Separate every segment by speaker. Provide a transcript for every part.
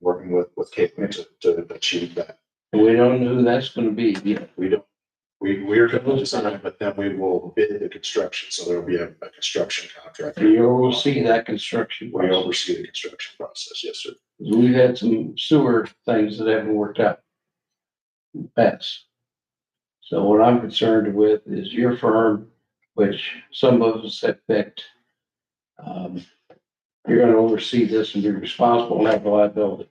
Speaker 1: working with, with Cape May to, to achieve that.
Speaker 2: We don't know who that's gonna be yet.
Speaker 1: We don't, we, we're gonna design, but then we will bid the construction, so there'll be a, a construction contract.
Speaker 2: You will see that construction.
Speaker 1: We oversee the construction process, yes, sir.
Speaker 2: We've had some sewer things that haven't worked out. in the Past. So what I'm concerned with is your firm, which some of us have picked. Um, you're gonna oversee this and be responsible and have liability.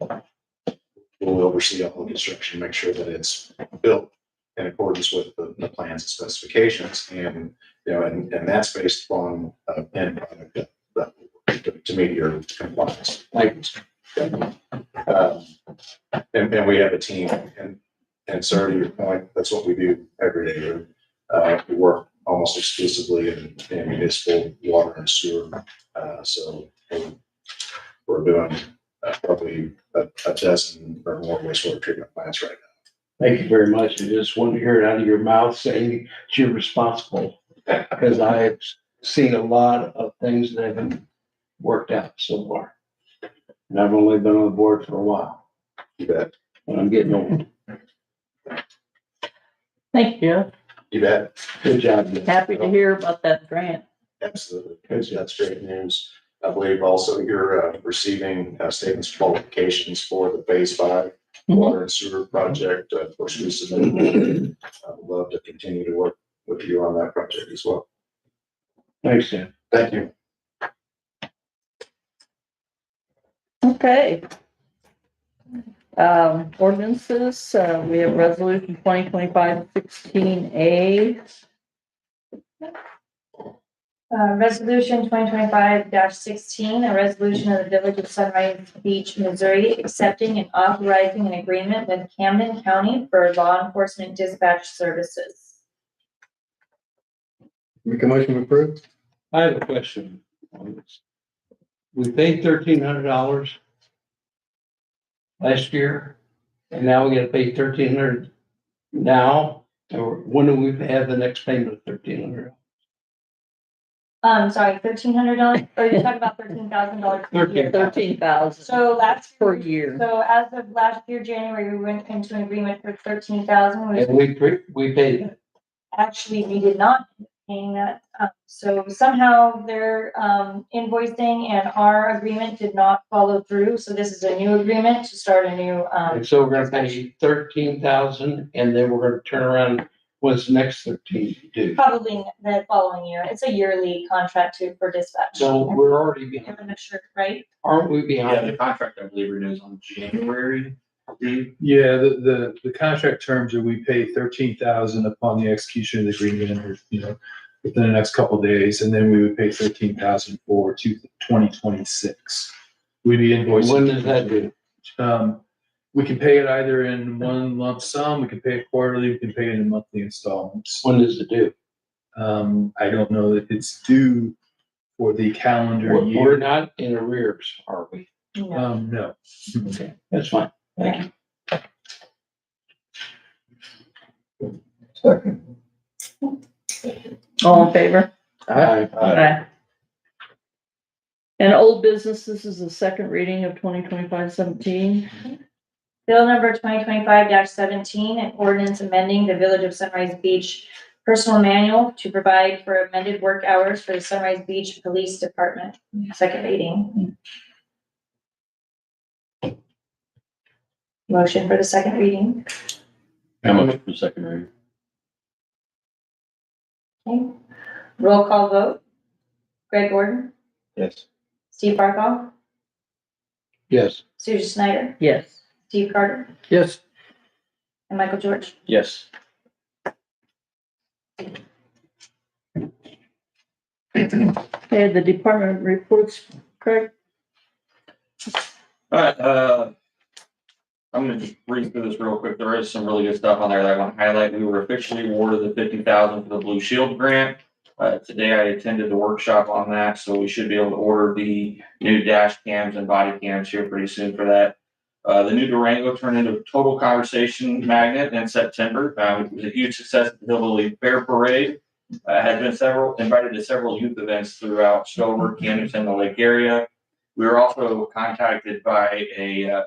Speaker 1: We'll oversee all the construction, make sure that it's built in accordance with the, the plans and specifications and, you know, and, and that's based upon, uh, end product that- that, to, to meet your compliance.
Speaker 2: Like,
Speaker 1: Um, And, and we have a team and, and sir, to your point, that's what we do every day. Uh, we work almost exclusively in, in municipal water and sewer. Uh, so we're- we're doing uh, probably a, a dozen or more wastewater treatment plants right
Speaker 2: Thank you very much. I just wanted to hear it out of your mouth saying that you're responsible. Because I have seen a lot of things that haven't worked out so far. And I've only been on the board for a while,
Speaker 1: now. You bet.
Speaker 2: and I'm getting old.
Speaker 3: Thank you.
Speaker 1: You bet.
Speaker 2: Good job. Nick.
Speaker 3: Happy to hear about that grant.
Speaker 1: Absolutely. That's, that's great news. I believe also you're, uh, receiving uh, statements of qualifications for the phase five water and sewer project, uh, of course, we submitted. I'd love to continue to work with you on that project as well.
Speaker 2: Thanks, Sam.
Speaker 1: Thank you.
Speaker 3: Okay. Um, ordinances, uh, we have resolution twenty twenty-five sixteen A.
Speaker 4: Uh, resolution twenty twenty-five sixteen, a resolution of the Village of Sunrise Beach, Missouri, accepting and authorizing an agreement with Camden County for law enforcement dispatch services.
Speaker 5: Make a motion to approve?
Speaker 2: I have a question on this. We paid thirteen hundred dollars last year, and now we gotta pay thirteen hundred now, or when do we have the next payment of thirteen hundred?
Speaker 4: Um, sorry, thirteen hundred dollars, or you're talking about thirteen thousand dollars?
Speaker 3: Thirteen thousand
Speaker 4: So last,
Speaker 3: per year.
Speaker 4: so as of last year, January, we went into an agreement for thirteen thousand, which
Speaker 2: And we, pre- we paid that.
Speaker 4: actually we did not end up paying that. Uh, So somehow their um, invoicing and our agreement did not follow through. So this is a new agreement to start a new, um,
Speaker 2: And so we're gonna pay thirteen thousand and then we're gonna turn around, what's the next thirteen due?
Speaker 4: probably the following year. It's a yearly contract too for dispatch.
Speaker 2: So we're already, behind.
Speaker 4: I'm not sure, right?
Speaker 2: aren't we
Speaker 6: Yeah,
Speaker 2: behind?
Speaker 6: the contract, I believe, renews on January. Dave?
Speaker 5: Yeah, the, the, the contract terms are we pay thirteen thousand upon the execution of the agreement, or, you know, within the next couple of days, and then we would pay thirteen thousand for two, twenty twenty-six. We'd be invoicing.
Speaker 2: When does that do?
Speaker 5: Um, we can pay it either in one lump sum, we can pay it quarterly, we can pay it in monthly installments.
Speaker 2: When does it do?
Speaker 5: Um, I don't know that it's due for the calendar
Speaker 2: We're we're
Speaker 5: year.
Speaker 2: not in arrears, are we?
Speaker 4: No.
Speaker 5: Um, no.
Speaker 2: Okay, that's fine. Thank you.
Speaker 3: All in favor?
Speaker 2: Aye.
Speaker 3: Aye. And old business, this is the second reading of twenty twenty-five seventeen.
Speaker 4: Bill number twenty twenty-five seventeen, an ordinance amending the Village of Sunrise Beach personal manual to provide for amended work hours for the Sunrise Beach Police Department. Second reading. Motion for the second reading.
Speaker 6: How much for second reading?
Speaker 4: Okay. Roll call vote. Greg Gordon,
Speaker 6: Yes.
Speaker 4: Steve Barkoff,
Speaker 2: Yes.
Speaker 4: Susan Snyder,
Speaker 3: Yes.
Speaker 4: Steve Carter,
Speaker 2: Yes.
Speaker 4: and Michael George.
Speaker 6: Yes.
Speaker 3: Okay, the department reports, Craig?
Speaker 6: All right, uh, I'm gonna just read through this real quick. There is some really good stuff on there that I want to highlight. We were officially awarded the fifty thousand for the Blue Shield grant. Uh, today I attended the workshop on that, so we should be able to order the new dash cams and body cams here pretty soon for that. Uh, the new Durango turned into a total conversation magnet in September. Uh, it was a huge success at the Hillbilly Fair Parade. I had been several, invited to several youth events throughout Stover, Camden, and the Lake area. We were also contacted by a uh,